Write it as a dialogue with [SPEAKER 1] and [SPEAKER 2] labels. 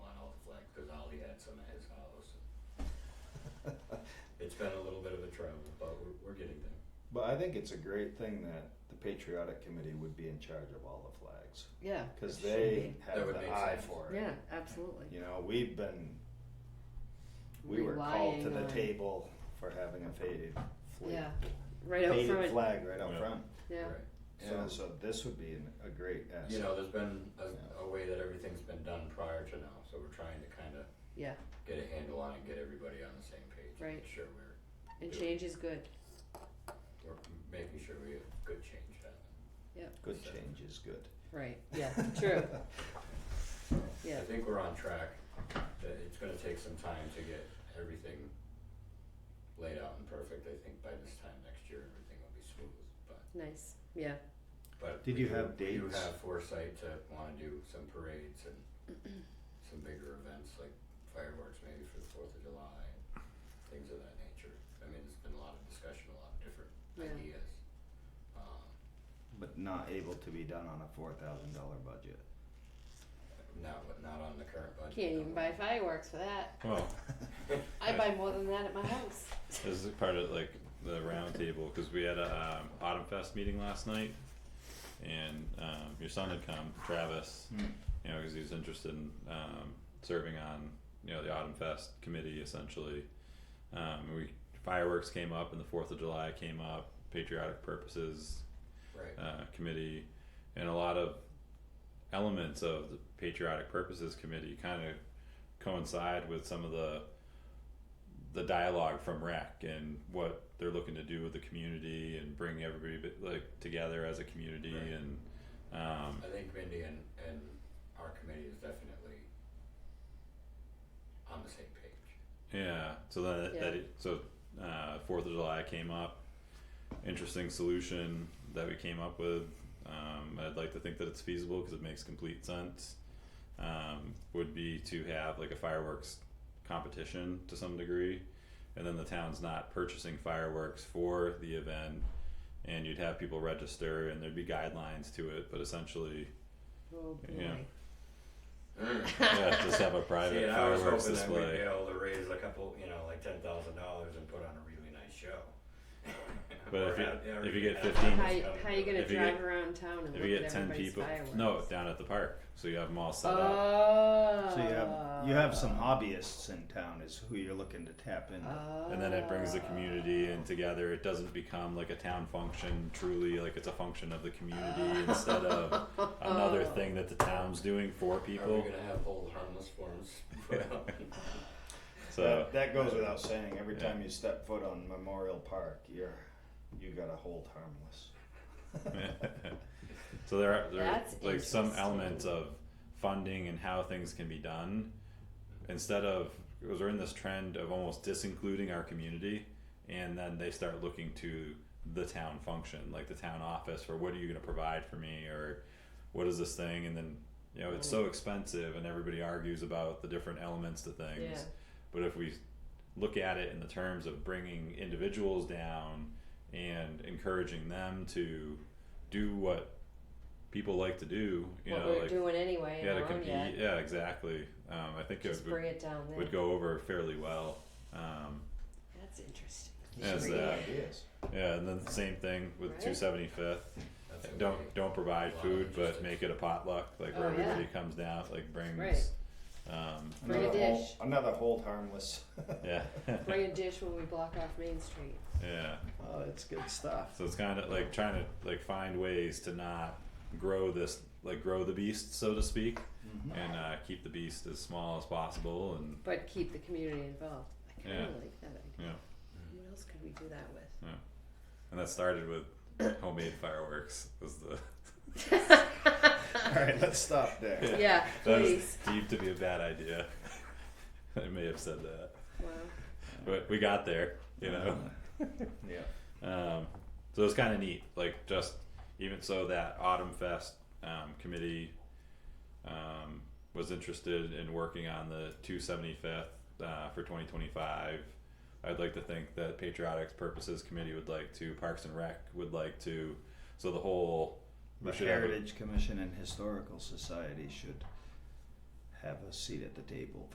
[SPEAKER 1] It's been a little bit of a travel, but we're, we're getting there.
[SPEAKER 2] But I think it's a great thing that the Patriotic Committee would be in charge of all the flags
[SPEAKER 3] Yeah.
[SPEAKER 2] because
[SPEAKER 3] it should
[SPEAKER 2] they
[SPEAKER 1] That
[SPEAKER 2] have
[SPEAKER 1] would
[SPEAKER 2] the
[SPEAKER 1] make
[SPEAKER 2] eye
[SPEAKER 1] sense.
[SPEAKER 2] for
[SPEAKER 3] be.
[SPEAKER 2] it.
[SPEAKER 3] Yeah, absolutely.
[SPEAKER 2] You know, we've been we were called
[SPEAKER 3] Relying
[SPEAKER 2] to the
[SPEAKER 3] on-
[SPEAKER 2] table for having a faded flag,
[SPEAKER 3] Yeah, right out
[SPEAKER 2] faded
[SPEAKER 3] front.
[SPEAKER 2] flag right out
[SPEAKER 4] Yeah.
[SPEAKER 2] front.
[SPEAKER 3] Yeah.
[SPEAKER 1] Right.
[SPEAKER 2] So,
[SPEAKER 1] So,
[SPEAKER 2] so this would be an, a great asset.
[SPEAKER 1] you know, there's been
[SPEAKER 2] Yeah.
[SPEAKER 1] a, a way that everything's been done prior to now, so we're trying to kind of
[SPEAKER 3] Yeah.
[SPEAKER 1] get a handle on it, get everybody on the same page. and
[SPEAKER 3] Right.
[SPEAKER 1] make Sure we're,
[SPEAKER 3] And change is good.
[SPEAKER 1] we're making sure we have good change on it.
[SPEAKER 2] good change is good.
[SPEAKER 3] Right. Yeah. True. Yeah.
[SPEAKER 1] I think we're on track. Uh, It's gonna take some time to get everything laid out and perfect. I think by this time next year, everything will be smooth, but,
[SPEAKER 3] Nice. Yeah.
[SPEAKER 1] but.
[SPEAKER 2] Did
[SPEAKER 1] we
[SPEAKER 2] you
[SPEAKER 1] do-
[SPEAKER 2] have
[SPEAKER 1] You
[SPEAKER 2] dates?
[SPEAKER 1] have foresight to wanna do some parades and some bigger events like fireworks maybe for the Fourth of July and things of that nature. I mean, there's been a lot of discussion, a lot of different
[SPEAKER 3] Yeah.
[SPEAKER 1] ideas. Um,
[SPEAKER 2] But not able to be done on a four thousand dollar budget.
[SPEAKER 1] not, not on the current budget.
[SPEAKER 3] Can't even
[SPEAKER 1] no.
[SPEAKER 3] buy fireworks for that.
[SPEAKER 4] Well,
[SPEAKER 3] I buy more than that at my house.
[SPEAKER 4] this is part of like the roundtable because we had a um, Autumn Fest meeting last night, and um, your son had come, Travis. You know, because he was interested in um, serving on you know the Autumn Fest committee essentially. Um, and we fireworks came up, and the Fourth of July came up. Patriotic purposes
[SPEAKER 1] Right,
[SPEAKER 4] uh, committee and a lot of elements of the patriotic purposes committee kind of coincide with some of the the dialogue from rec and what they're looking to do with the community and bring everybody bit- like together as a community
[SPEAKER 1] Right.
[SPEAKER 4] and um
[SPEAKER 1] I think Mindy and, and our committee is definitely on the same page.
[SPEAKER 4] yeah so then that, that
[SPEAKER 3] Yeah.
[SPEAKER 4] it- so uh fourth of july came up interesting solution that we came up with um i'd like to think that it's feasible because it makes complete sense um, would be to have like a fireworks competition to some degree, and then the town's not purchasing fireworks for the event, and you'd have people register, and there'd be guidelines to it, but essentially,
[SPEAKER 3] Oh boy.
[SPEAKER 4] Yeah.
[SPEAKER 1] See,
[SPEAKER 4] yeah, just have a
[SPEAKER 1] and
[SPEAKER 4] private
[SPEAKER 1] I was
[SPEAKER 4] fireworks
[SPEAKER 1] hoping that we'd be
[SPEAKER 4] display.
[SPEAKER 1] able to raise a couple, you know, like ten thousand dollars and put on a really nice show.
[SPEAKER 4] But
[SPEAKER 1] Or
[SPEAKER 4] if you-
[SPEAKER 1] have- yeah,
[SPEAKER 4] if you
[SPEAKER 1] or
[SPEAKER 4] get
[SPEAKER 1] have
[SPEAKER 4] 15
[SPEAKER 3] How,
[SPEAKER 1] fireworks
[SPEAKER 3] you-
[SPEAKER 1] out
[SPEAKER 3] how you
[SPEAKER 1] there.
[SPEAKER 3] gonna
[SPEAKER 4] If you
[SPEAKER 3] drive
[SPEAKER 4] get-
[SPEAKER 3] around town and
[SPEAKER 4] If
[SPEAKER 3] look
[SPEAKER 4] you
[SPEAKER 3] at
[SPEAKER 4] get ten
[SPEAKER 3] everybody's
[SPEAKER 4] people,
[SPEAKER 3] fireworks?
[SPEAKER 4] no, down at the park, so you have them all set up.
[SPEAKER 3] Oh.
[SPEAKER 2] So you have you have some hobbyists in town is who you're looking to tap into.
[SPEAKER 3] Oh.
[SPEAKER 4] and then it brings the community in together. It doesn't become like a town function truly, like it's a function of the community instead of another
[SPEAKER 3] Oh.
[SPEAKER 4] thing that the town's doing for
[SPEAKER 1] Are we
[SPEAKER 4] people.
[SPEAKER 1] gonna have whole harmless forms? put up?
[SPEAKER 4] So
[SPEAKER 2] that, that goes without saying. Every
[SPEAKER 4] Yeah.
[SPEAKER 2] time you step foot on Memorial Park, you're you gotta hold harmless.
[SPEAKER 4] so there are there are
[SPEAKER 3] That's
[SPEAKER 4] like some
[SPEAKER 3] interesting.
[SPEAKER 4] elements of funding and how things can be done instead of because we're in this trend of almost disincluding our community and then they start looking to the town function like the town office for what are you going to provide for me or what is this thing and then you know it's
[SPEAKER 3] Mm.
[SPEAKER 4] so expensive and everybody argues about the different elements to things
[SPEAKER 3] Yeah.
[SPEAKER 4] but if we look at it in the terms of bringing individuals down and encouraging them to do what people like to do, you
[SPEAKER 3] what
[SPEAKER 4] know,
[SPEAKER 3] we're
[SPEAKER 4] like
[SPEAKER 3] doing anyway in
[SPEAKER 4] yeah, to
[SPEAKER 3] our own
[SPEAKER 4] compete.
[SPEAKER 3] yet.
[SPEAKER 4] Yeah, exactly. Um, I think
[SPEAKER 3] Just
[SPEAKER 4] it would,
[SPEAKER 3] bring it down there.
[SPEAKER 4] would go over fairly well. Um,
[SPEAKER 3] That's interesting.
[SPEAKER 4] Yes,
[SPEAKER 2] Great
[SPEAKER 4] uh,
[SPEAKER 2] ideas.
[SPEAKER 4] yeah, and then the same thing with
[SPEAKER 3] Right.
[SPEAKER 4] 275th.
[SPEAKER 1] That's a
[SPEAKER 4] Don't
[SPEAKER 1] big-
[SPEAKER 4] don't provide
[SPEAKER 1] Wow,
[SPEAKER 4] food, but
[SPEAKER 1] interesting.
[SPEAKER 4] make it a potluck, like where
[SPEAKER 3] Oh, yeah.
[SPEAKER 4] everybody comes down, like brings.
[SPEAKER 3] Right.
[SPEAKER 4] Um,
[SPEAKER 3] Bring a
[SPEAKER 2] another hold,
[SPEAKER 3] dish.
[SPEAKER 2] another hold harmless.
[SPEAKER 4] yeah,
[SPEAKER 3] Bring a dish when we block off Main Street.
[SPEAKER 4] yeah.
[SPEAKER 2] Oh, that's good stuff.
[SPEAKER 4] So it's kind of like trying to like find ways to not grow this, like grow the beast, so to speak, and uh, keep the beast as small as possible. And
[SPEAKER 3] But keep the community involved. I kinda
[SPEAKER 4] Yeah.
[SPEAKER 3] like that idea.
[SPEAKER 4] you know,
[SPEAKER 3] What else could we do that with?
[SPEAKER 4] and that started with homemade fireworks. Was the
[SPEAKER 2] All right, let's stop there.
[SPEAKER 3] Yeah,
[SPEAKER 4] that was
[SPEAKER 3] please.
[SPEAKER 4] deemed to be a bad idea. I may have said that,
[SPEAKER 3] Wow.
[SPEAKER 4] but we got there. You know.
[SPEAKER 2] Yeah.
[SPEAKER 4] Um, so it's kind of neat, like just even so that Autumn Fest um, committee um, was interested in working on the 275th uh, for 2025. I'd like to think that Patriotic Purposes Committee would like to, Parks and Rec would like to, so the whole we
[SPEAKER 2] The
[SPEAKER 4] should have a-
[SPEAKER 2] Heritage Commission and Historical Society should have a seat at the table